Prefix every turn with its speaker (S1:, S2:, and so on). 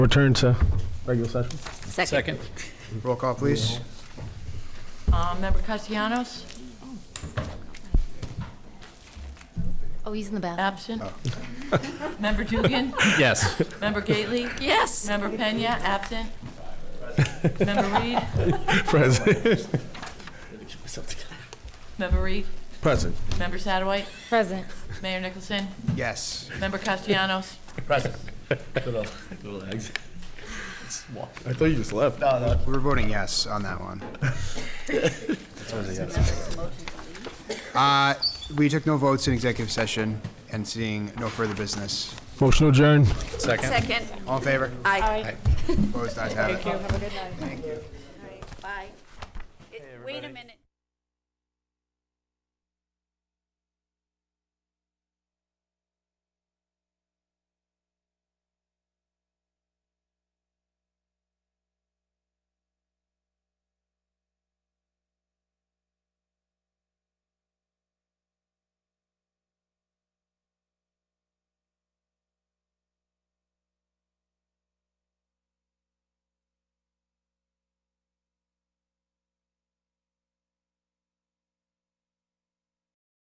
S1: Return to regular session.
S2: Second.
S3: Roll call, please.
S4: Uh, Member Castellanos,
S5: Oh, he's in the bathroom.
S4: absent. Member Dugan,
S2: Yes.
S4: Member Gately,
S5: Yes.
S4: Member Pena, absent. Member Reed,
S1: Present.
S4: Member Reed,
S1: Present.
S4: Member Sadowite,
S5: Present.
S4: Mayor Nicholson,
S3: Yes.
S4: Member Castellanos,
S1: I thought you just left.
S3: We were voting yes on that one. Uh, We took no votes in executive session and seeing no further business.
S1: Motion adjourned.
S5: Second.
S3: All in favor?
S5: Aye.
S3: Opposed? Ayes have it.
S5: Bye. Wait a minute.